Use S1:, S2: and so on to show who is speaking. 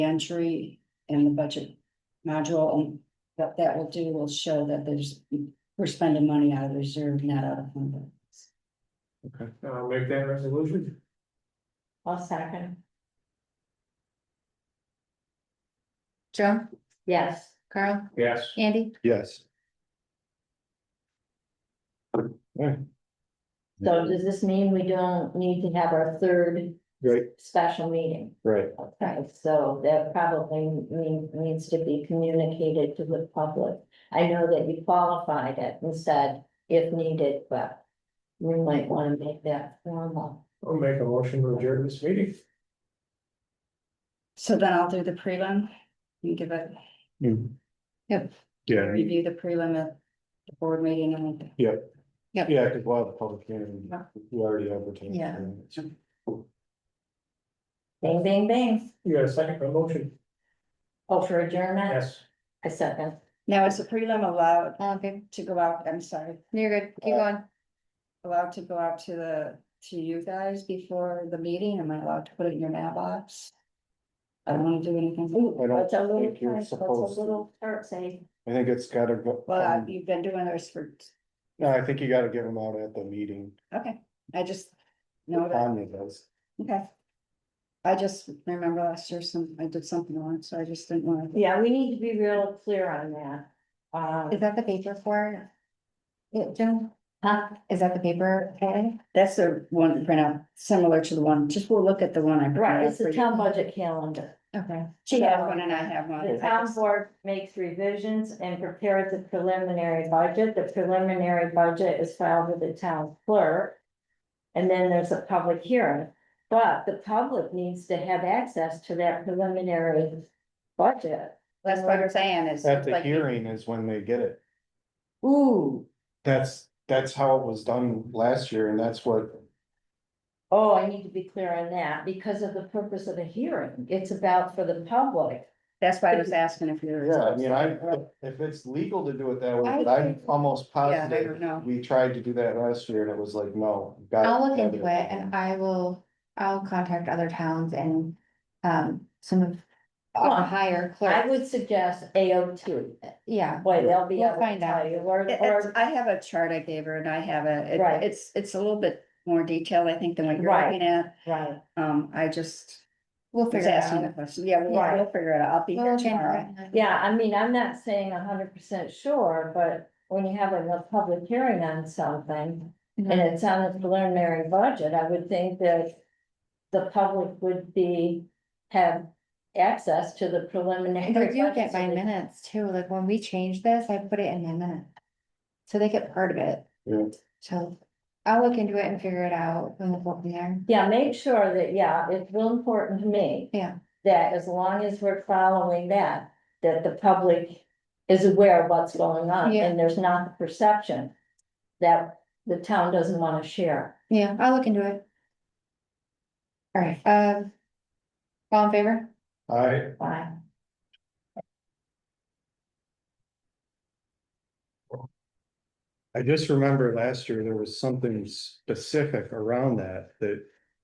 S1: entry in the budget module, and what that will do will show that there's, we're spending money out of reserve, not out of fund. balance.
S2: Okay,
S3: And I'll Uh, make that resolution.
S4: I'll second.
S5: Joan,
S4: Yes.
S5: Carl,
S3: Yes.
S5: Andy,
S2: yes. Alright.
S4: So does this mean we don't need to have our third
S2: Right,
S4: special meeting?
S2: right,
S4: Okay, so that probably mean- needs to be communicated to the public. I know that you qualified it and said if needed, but we might want to make that formal.
S3: I'll make a motion to adjourn this meeting.
S1: So then I'll do the prelim, and give it,
S2: you.
S5: Yep.
S2: Yeah,
S1: review the prelim at the board meeting and.
S2: yeah, because we'll have the public hearing, we already have the. time.
S5: Yeah.
S4: Bang, bang, bang.
S3: You got a second for the motion?
S4: Oh, for adjournment?
S3: Yes.
S4: I second.
S1: Now, is the prelim allowed
S5: all in favor?
S1: to go out, I'm sorry, Uh,
S5: You're good, keep going.
S1: allowed to go out to the, to you guys before the meeting? Am I allowed to put it in your mailbox? I don't wanna do anything.
S2: I don't
S4: What's a little,
S2: think you're
S4: what's a
S2: supposed to.
S4: little part say?
S2: I think it's gotta go,
S1: Well, I-
S2: um,
S1: you've been doing this for,
S2: no, I think you gotta give them out at the meeting,
S1: okay, I just know that.
S2: Tanya does.
S1: Okay. I just remember last year some, I did something on, so I just didn't want to.
S4: Yeah, we need to be real clear on that. Um,
S5: Is that the paper for? it, Joan,
S4: huh?
S5: is that the paper? Patty?
S1: That's the one printout similar to the one, just we'll look at the one I. printed
S4: Right,
S1: out
S4: it's the
S1: for you.
S4: town budget calendar.
S5: Okay,
S1: She has one and I have one.
S4: The
S1: I
S4: town
S1: just-
S4: board makes revisions and prepares the preliminary budget. The preliminary budget is filed with the town clerk. And then there's a public hearing, but the public needs to have access to that preliminary budget.
S1: That's what I'm saying is.
S2: At the
S1: like-
S2: hearing is when they get it,
S4: Ooh,
S2: that's, that's how it was done last year, and that's what,
S4: oh, I need to be clear on that because of the purpose of the hearing. It's about for the public.
S1: That's why I was asking if you're.
S2: yeah, I mean, I, if it's legal to do it that way, but I'm almost
S1: Yeah, I don't
S2: positive.
S1: know.
S2: We tried to do that last year, and it was like, no. you gotta
S5: I'll look
S2: have
S5: into it and I will, I'll contact other towns and, um, some of.
S4: Well,
S5: Our higher
S4: I
S5: clerk,
S4: would suggest AO2.
S5: yeah,
S4: Boy, they'll be
S5: We'll
S4: able to
S5: find out.
S4: tell you or,
S1: It-
S4: or
S1: it's- I have a chart I gave her and I have a,
S4: Right.
S1: it- it's, it's a little bit more detailed, I think, than what you're
S4: Right.
S1: looking at.
S4: Right,
S1: Um, I just
S5: we'll
S1: was
S5: figure it
S1: asking the
S5: out.
S1: question. Yeah, we'll,
S4: Right.
S1: we'll figure it out. I'll be
S5: We'll
S1: here
S5: look into
S1: tomorrow.
S5: it.
S4: yeah, I mean, I'm not saying hundred percent sure, but when you have a public hearing on something. And
S5: Mhm.
S4: it's on the preliminary budget, I would think that the public would be, have access to the preliminary.
S5: But you
S4: budget.
S5: get my minutes too, like when we changed this, I put it in my minute. So they get part of it.
S2: Yeah.
S5: So I'll look into it and figure it out and we'll go from there.
S4: Yeah, make sure that, yeah, it's real important to me.
S5: Yeah.
S4: That as long as we're following that, that the public is aware of what's going on
S5: Yeah.
S4: and there's not the perception. That the town doesn't wanna share.
S5: Yeah, I'll look into it. All right, um. All in favor?
S2: I,
S4: Bye.
S2: I just remember last year, there was something specific around that, that